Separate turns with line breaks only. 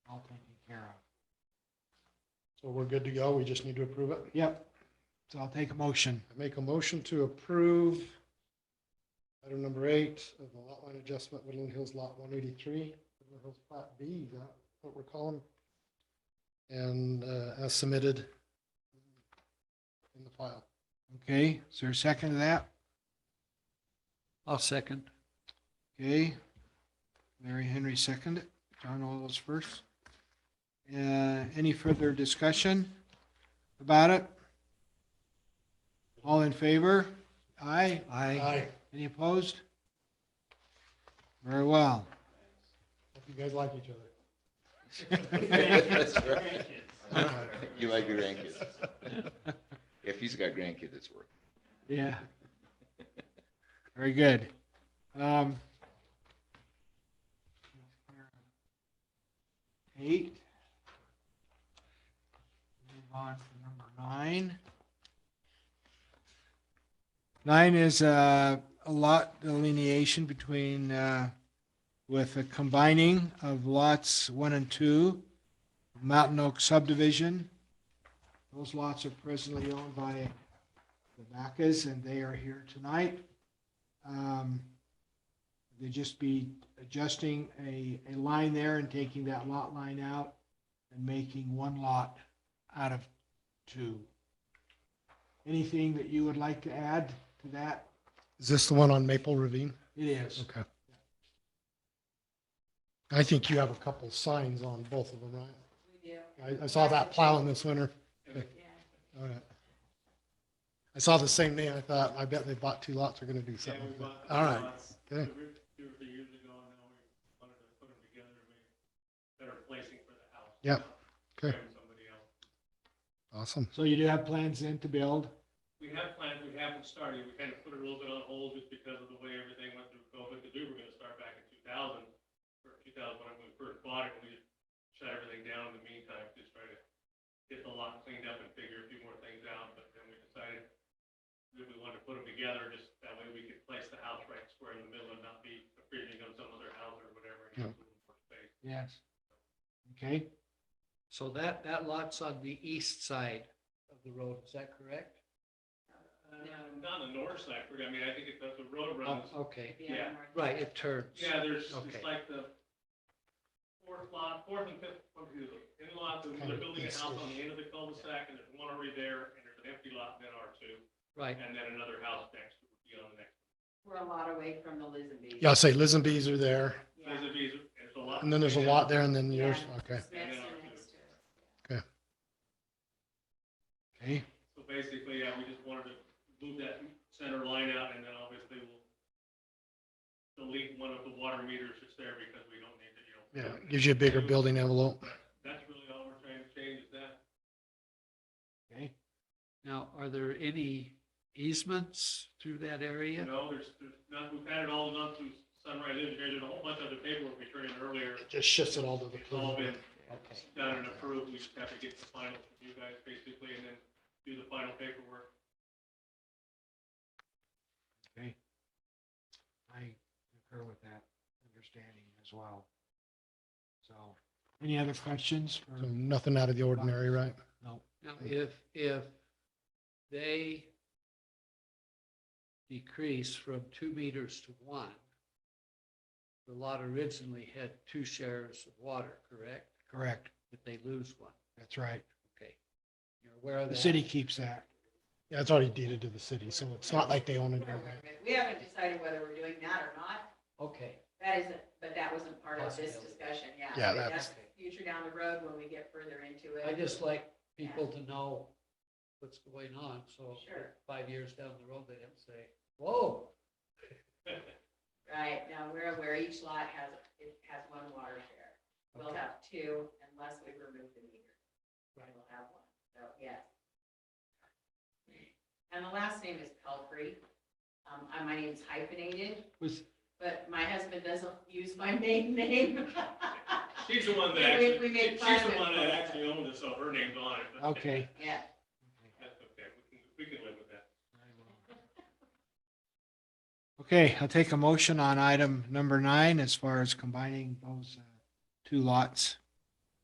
So we're good to go. We just need to approve it.
Yep. So I'll take a motion.
I make a motion to approve item number eight of the lot line adjustment, Woodland Hills Lot 183, Woodland Hills Plat B, is that what we're calling. And uh, as submitted in the file.
Okay, is there a second to that?
I'll second.
Okay. Larry Henry seconded. John Olive's first. Uh, any further discussion about it? All in favor? Aye.
I,
Aye.
Any opposed? Very well.
Hope you guys like each other.
That's right.
Alright.
You like your grandkids. If he's got grandkids, it's worth
Yeah. Very good. Um, eight. Move on to number nine. Nine is uh, a lot delineation between, uh, with a combining of lots one and two, Mountain Oak subdivision. Those lots are presently owned by the Vacas, and they are here tonight. Um, They just be adjusting a, a line there and taking that lot line out and making one lot out of two. Anything that you would like to add to that?
Is this the one on Maple Ravine?
It is.
Okay. I think you have a couple signs on both of them, right? I, I saw that plowing this winter. All right. I saw the same name. I thought, I bet they bought two lots. They're going to do
Yeah,
something.
we
with
bought
it. All
the
right.
lots.
good.
uh, We were- Two or three years ago, and now we wanted to put them together to make better placing for the house.
Yep,
not
okay.
having somebody else.
Awesome.
So you do have plans then to build?
We have plans, we haven't started, we kind of put it a little bit on hold just because of the way everything went through COVID, because we were gonna start back in two thousand, or two thousand when we first bought it, and we just shut everything down in the meantime, just try to get the lot cleaned up and figure a few more things out, but then we decided that we wanted to put them together, just that way we could place the house right square in the middle and not be appreciating on some other house or whatever. and have a little more space.
Yes. Okay,
so that, that lot's on the east side of the road, is that correct?
Uh, Not on the north side, we're- I mean, I think if that's the road
Oh,
runs,
Okay,
yeah.
right, it turns.
Yeah, there's,
Okay.
it's like the fourth lot, fourth and fifth, what do you do? In lots, and
Kind
they're
of
building a
this
house
is-
on the end of the cul-de-sac, and there's one already there, and there's an empty lot in R two,
Right,
and then another house next, to it, you know, the next.
We're a lot away from the Lizenby.
Yeah, I'll say Liz and Bees are there.
Yeah.
There's a, there's a lot.
And then there's a lot there and then yours.
Yeah.
Okay.
Smith's are next to it.
okay,
So basically, yeah, we just wanted to move that center line out, and then obviously we'll delete one of the water meters that's there because we don't need to, you know.
Yeah. Gives you a bigger building envelope.
That's really all we're trying to change is that.
okay.
now, are there any easements through that area?
No, there's, there's not, we've had it all done through Sunrise Engineering, there's a whole bunch of the paperwork we turned in earlier.
It just shifts it all to the.
It's all been
Okay,
done and approved, we just have to get the final from you guys basically, and then do the final paperwork.
I concur with that understanding as well. So, any other questions? for-
So Nothing out of the ordinary, right?
No.
now, if, if they decrease from two meters to one, the lot originally had two shares of water, correct?
Correct,
But they lose one,
that's right.
okay. You're aware of that?
The city keeps that.
Yeah, it's already deeded to the city, so it's not like they own it.
We're aware of it. We haven't decided whether we're doing that or not.
Okay,
That isn't, but that wasn't part of this
Possibility.
discussion, yeah.
Yeah,
But
that's-
Future down the road when we get further into it.
I just like people to know what's going on, so
Sure.
five years down the road, they don't say, whoa,
Right, now we're aware each lot has, it has one water share. We'll
Okay.
have two unless we remove the meter.
Right.
We'll have one, so yes. And the last name is Pelfrey. Um, I- my name's hyphenated,
Was,
but my husband doesn't use my maiden name.
She's the one that
We-
actually,
we made
she's the
fun of
one
it.
that actually owned it, so her name's on it. but
okay.
Yeah,
That's okay, we can, we can live with that.
Okay, I'll take a motion on item number nine as far as combining those uh, two lots.